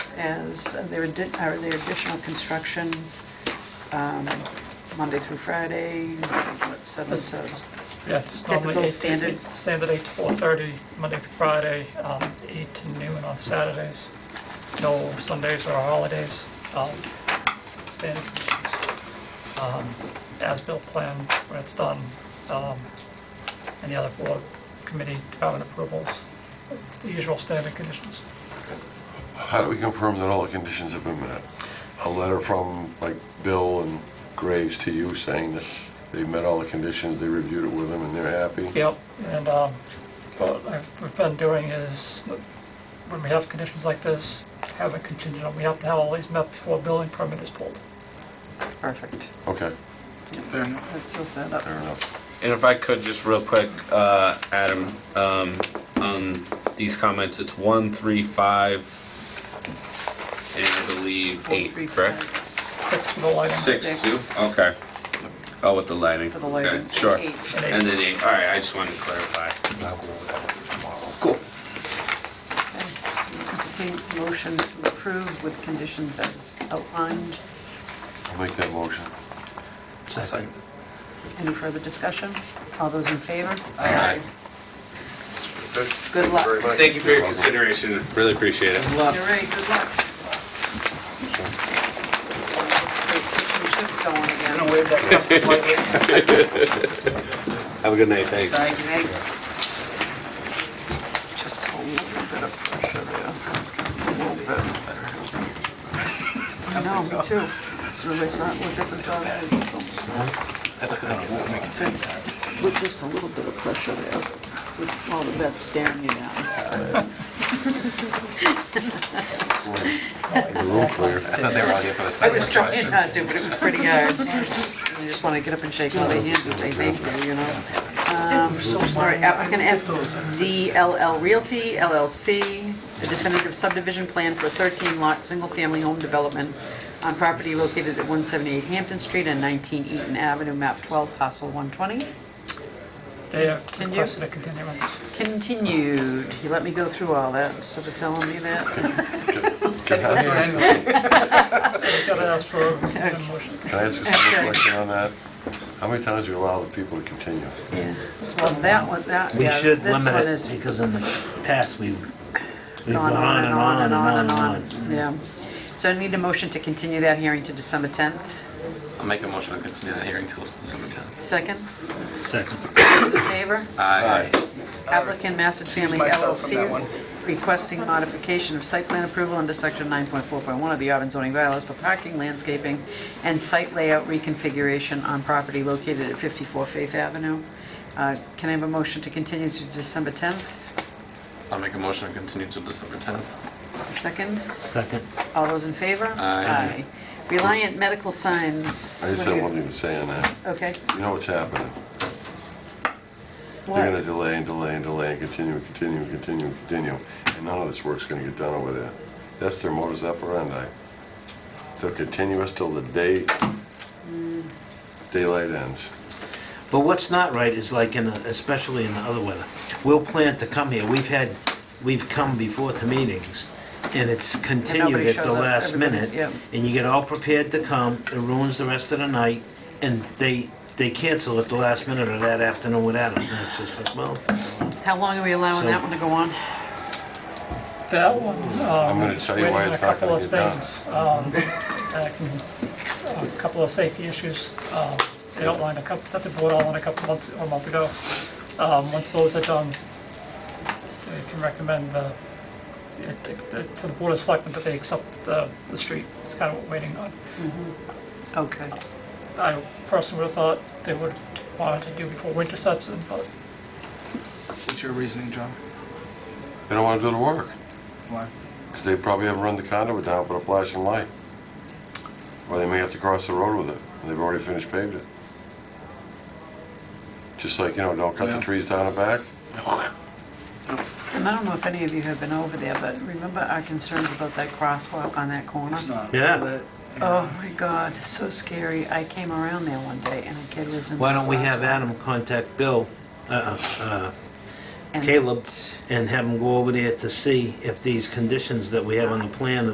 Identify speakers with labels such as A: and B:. A: as their addi- or their additional construction um, Monday through Friday, what, seven to,
B: That's normally
A: Typical
B: eight to-
A: standard.
B: it's Standard eight to four thirty, Monday through Friday, um, eight to noon on Saturdays. No Sundays or holidays. um, Standard conditions. Um, As-built plan when it's done, um, and the other four committee department approvals. It's the usual standard conditions.
C: How do we confirm that all the conditions have been met? A letter from, like, Bill and Graves to you saying that they met all the conditions, they reviewed it with them, and they're happy?
B: Yep, and um, what I've- we've been doing is, when we have conditions like this, have a contingent, on- we have to have all these met before a building permit is pulled.
A: perfect.
C: Okay,
D: Fair enough.
A: That seals that up.
C: fair enough.
D: And if I could, just real quick, uh, Adam, um, on these comments, it's one, three, five, and I believe
A: Four,
D: eight,
A: three,
D: correct?
A: five,
B: Six for the lighting.
D: Six, two,
A: Six.
D: okay. Oh, with the lighting.
A: For the lighting.
D: Okay, Sure.
A: Eight.
D: And then eight, all right, I just wanted to clarify. Cool.
A: Entertain motion to approve with conditions as outlined.
C: I'll make that motion.
A: Any further discussion? All those in favor?
D: Aye.
A: Good luck.
C: Very much.
D: Thank you for your consideration, really appreciate it.
A: You're right, good luck. Those fish and chips going again.
D: Have a good night, thanks.
A: Thanks. Just a little bit of pressure there. A little bit. I know, me too. It's really not, look at the dog. With just a little bit of pressure there, with all the vets staring you down.
C: The room clear.
E: They were all here for the
A: I
E: second
A: was trying not to, but it was pretty hard. I just want to get up and shake all their hands and say thank you, you know? Um, All right, applicant SZLL Realty LLC, a definitive subdivision plan for a 13-lot, single-family home development on property located at 178 Hampton Street and 19 Eaton Avenue, map 12, parcel 120.
B: They have
A: Continue.
B: requested a continuance.
A: Continued. You let me go through all that instead of telling me that?
C: Can I
B: They've got to ask for a motion.
C: can I ask a simple question on that? How many times do we allow the people to continue?
A: Yeah. Well, that one, that,
F: We
A: yeah,
F: should
A: this
F: limit
A: one
F: it,
A: is
F: because in the past, we've, we've
A: on and on and on and on and
F: and
A: on. Yeah. So I need a motion to continue that hearing to December 10th.
E: I'll make a motion to continue the hearing till December 10th.
A: Second,
F: on. Second.
A: those in favor?
E: Aye.
A: Applicant Massett Family
E: Uh, myself from that one.
A: LLC requesting modification of site plan approval under section 9.4.1 of the Auburn zoning bylaws for parking, landscaping, and site layout reconfiguration on property located at 54 Faith Avenue. Uh, Can I have a motion to continue to December 10th?
E: I'll make a motion to continue till December 10th.
A: Second,
F: Second.
A: all those in favor?
E: Aye.
A: Reliant Medical Signs.
C: I just
A: what do
C: had
A: you-
C: one thing to say on that.
A: Okay.
C: You know what's happening? They're gonna
A: What?
C: delay and delay and delay and continue and continue and continue and continue, and none of this work's gonna get done over there. That's their modus operandi. They'll continue us till the day daylight ends.
F: But what's not right is like in, the- especially in the other weather, we'll plan to come here, we've had, we've come before to meetings, and it's continued at
A: shows
F: the
A: up.
F: last
A: Everybody's-
F: minute,
A: yeah.
F: and you get all prepared to come, it ruins the rest of the night, and they, they cancel at the last minute or that afternoon without us, and it's just like, well,
A: How long are we allowing
F: So-
A: that one to go on?
B: That one, um,
C: gonna
B: is
C: tell you
B: waiting
C: why
B: on a
C: it's not
B: couple
C: gonna
B: of
C: get done.
B: things. Um, and I can- A couple of safety issues. um, They outlined a couple, that the board outlined a couple months, or a month ago. Um, Once those are done, they can recommend uh, it- it- to the board of selectmen that they accept the the street. It's kind of what we're waiting on.
A: Okay.
B: I personally would have thought they would want to do before winter sets in, but
G: What's your reasoning, John?
C: They don't wanna do the work,
G: Why?
C: 'cause they probably haven't run the conduit down, put a flashing light. Or they may have to cross the road with it, and they've already finished paved it. Just like, you know, don't cut the
G: Yeah.
C: trees down the back.
A: And I don't know if any of you have been over there, but remember our concerns about that crosswalk on that corner?
G: It's not.
F: Yeah.
G: lit, and
A: Oh my God, so scary. I came around there one day and a kid was in.
F: why
A: the
F: don't we have
A: crosswalk.
F: Adam contact Bill, uh, uh,
A: And-
F: Caleb, and have him go over there to see if these conditions that we have on the plan